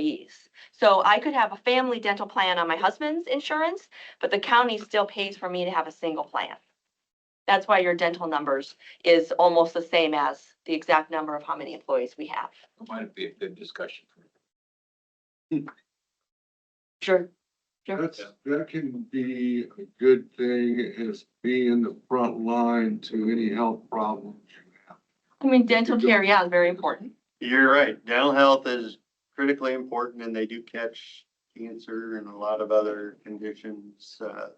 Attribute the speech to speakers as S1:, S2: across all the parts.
S1: employees. So I could have a family dental plan on my husband's insurance, but the county still pays for me to have a single plan. That's why your dental numbers is almost the same as the exact number of how many employees we have.
S2: Might be a good discussion.
S1: Sure. Sure.
S3: That's, that can be a good thing is being the front line to any health problems.
S1: I mean, dental care, yeah, is very important.
S4: You're right. Dental health is critically important and they do catch cancer and a lot of other conditions, uh,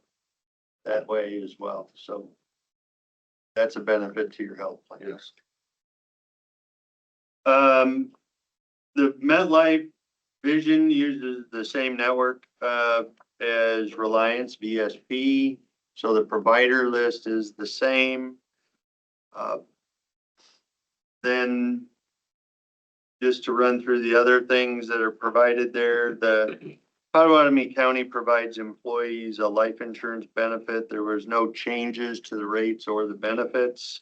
S4: that way as well. So that's a benefit to your health plan.
S3: Yes.
S4: Um, the MetLife Vision uses the same network, uh, as Reliance VSP. So the provider list is the same. Uh, Then just to run through the other things that are provided there, the Potawatomi County provides employees a life insurance benefit. There was no changes to the rates or the benefits.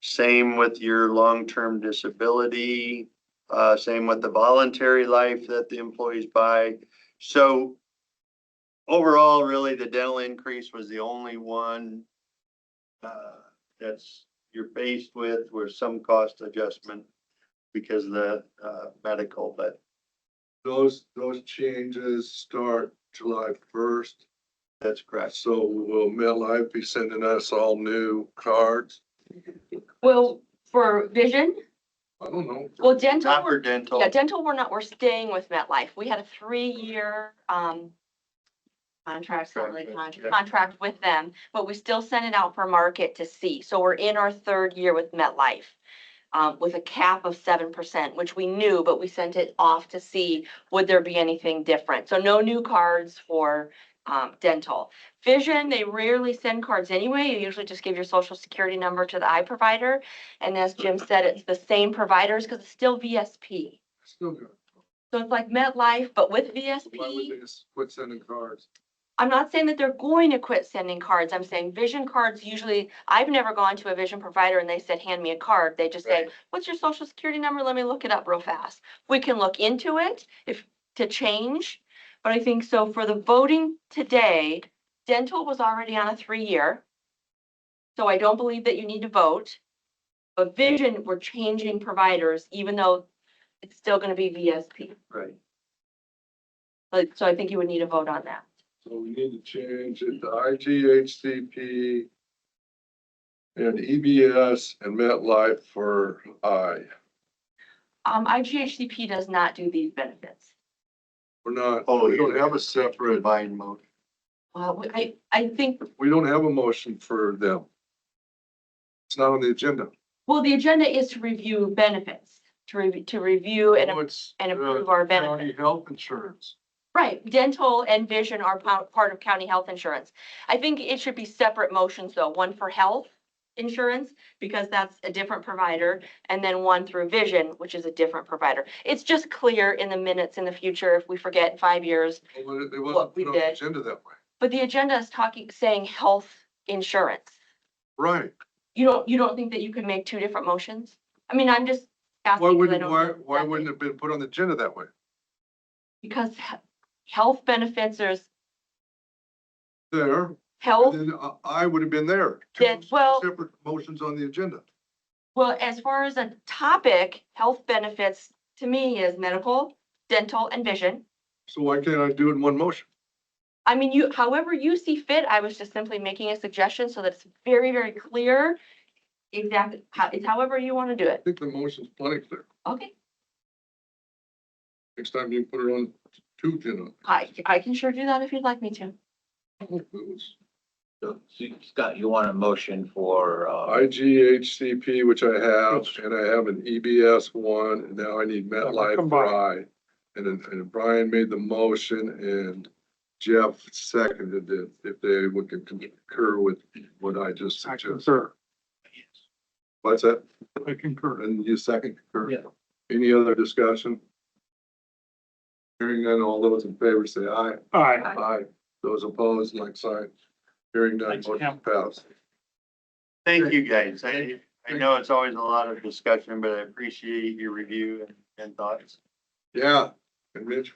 S4: Same with your long-term disability, uh, same with the voluntary life that the employees buy. So overall, really, the dental increase was the only one uh, that's you're faced with, where some cost adjustment because of the uh, medical, but
S3: Those, those changes start July first.
S4: that's correct.
S3: So will MetLife be sending us all new cards?
S1: Well, for vision,
S3: I don't know.
S1: well, dental,
S4: Not
S1: we're-
S4: for dental.
S1: yeah, dental, we're not, we're staying with MetLife. We had a three-year, um, contract, not really
S4: Contract,
S1: contract,
S4: yeah.
S1: contract with them, but we still send it out for market to see. So we're in our third year with MetLife. Um, with a cap of seven percent, which we knew, but we sent it off to see would there be anything different? So no new cards for um, dental. Vision, they rarely send cards anyway. You usually just give your social security number to the eye provider. And as Jim said, it's the same providers because it's still VSP.
S3: Still good.
S1: So it's like MetLife, but with
S3: Why would
S1: VSP.
S3: they just quit sending cards?
S1: I'm not saying that they're going to quit sending cards. I'm saying vision cards usually, I've never gone to a vision provider and they said, hand me a card. They just say,
S4: Right.
S1: what's your social security number? Let me look it up real fast. We can look into it if, to change. But I think so for the voting today, dental was already on a three-year. So I don't believe that you need to vote. But vision, we're changing providers, even though it's still gonna be VSP.
S4: Right.
S1: But, so I think you would need a vote on that.
S3: So we need to change it to IGHCP and EBS and MetLife for I.
S1: Um, IGHCP does not do these benefits.
S3: We're not,
S4: Oh,
S3: we don't
S4: yeah.
S3: have a separate,
S4: Combined mode.
S1: Well, we- I, I think,
S3: we don't have a motion for them. It's not on the agenda.
S1: well, the agenda is to review benefits, to review, to review
S3: Oh,
S1: and,
S3: it's,
S1: and
S3: uh,
S1: approve our benefits.
S3: County health insurance.
S1: Right, dental and vision are po- part of county health insurance. I think it should be separate motions though, one for health insurance, because that's a different provider, and then one through vision, which is a different provider. It's just clear in the minutes in the future, if we forget in five years,
S3: Well, It it
S1: What
S3: wasn't
S1: we
S3: put on the
S1: did.
S3: agenda that way.
S1: but the agenda is talking, saying health insurance.
S3: Right.
S1: You don't, you don't think that you can make two different motions? I mean, I'm just asking.
S3: Why
S1: 'cause I
S3: wouldn't,
S1: don't
S3: why,
S1: know
S3: why
S1: exactly.
S3: wouldn't it have been put on the agenda that way?
S1: Because he- health benefits, there's
S3: There, and
S1: health,
S3: then I- I would have been there. Two
S1: Oh. Then, well-
S3: Separate motions on the agenda.
S1: well, as far as a topic, health benefits to me is medical, dental, and vision.
S3: So why can't I do it in one motion?
S1: I mean, you, however you see fit, I was just simply making a suggestion so that it's very, very clear exactly, how- it's however you want to do
S3: I
S1: it.
S3: think the motion's plenty clear.
S1: Okay,
S3: Next time you can put it on two agenda.
S1: I, I can sure do that if you'd like me to.
S2: So so Scott, you want a motion for, uh,
S3: IGHCP, which I have, and I have an EBS one, and now I need MetLife for I. And then, and Brian made the motion and Jeff seconded it, if they would concur with what I just
S5: I
S3: suggested.
S5: concur,
S3: What's that?
S5: I concur.
S3: And you second concur?
S5: Yeah.
S3: Any other discussion? Hearing none, all those in favor say aye.
S5: Aye.
S3: Aye. Those opposed, like sign. Hearing none,
S5: Thanks,
S3: motion
S5: Cam.
S3: passed.
S4: Thank you, guys. I, I
S3: Thank-
S4: know it's always a lot of discussion, but I appreciate your review and- and thoughts.
S3: Yeah, and Mitch,